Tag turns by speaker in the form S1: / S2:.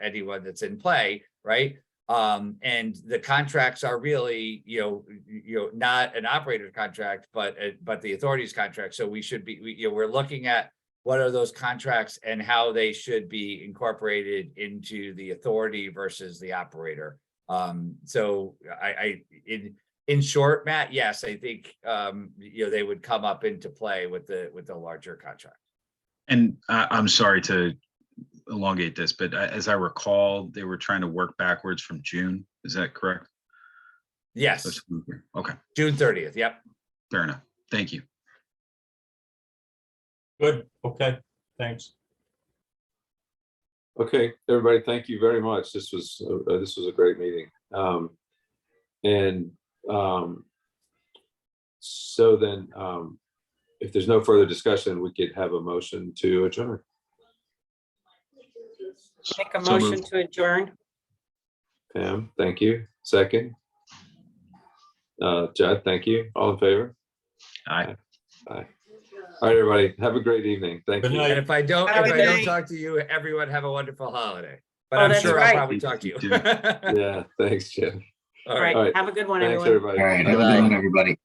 S1: anyone that's in play, right? Um, and the contracts are really, you know, you know, not an operator contract, but, uh, but the authority's contract. So we should be, we, you know, we're looking at what are those contracts and how they should be incorporated into the authority versus the operator. Um, so I, I, in, in short, Matt, yes, I think, um, you know, they would come up into play with the, with the larger contract.
S2: And I, I'm sorry to elongate this, but a- as I recall, they were trying to work backwards from June. Is that correct?
S1: Yes,
S2: Let's move here. Okay,
S1: June thirtieth, yep.
S2: fair enough. Thank you.
S3: Good, okay, thanks.
S4: Okay, everybody, thank you very much. This was, uh, uh, this was a great meeting. Um, And um, so then, um, if there's no further discussion, we could have a motion to adjourn.
S5: Make a
S2: So moved.
S5: motion to adjourn.
S4: Pam, thank you. Second. Uh, Judd, thank you. All in favor?
S2: Aye.
S4: Aye. All right, everybody, have a great evening. Thank
S3: Good
S4: you.
S3: night.
S1: And if I don't,
S5: Have a
S1: if I
S5: good
S1: don't
S5: night.
S1: talk to you, everyone have a wonderful holiday. But
S5: Oh,
S1: I'm
S5: that's
S1: sure I'll
S5: right.
S1: probably talk to you.
S2: You
S4: Yeah, thanks, Jim.
S1: All
S5: All
S1: right.
S4: All right.
S5: right, have a good one,
S4: Thanks,
S5: everyone.
S4: everybody.
S6: All right, have a good one, everybody.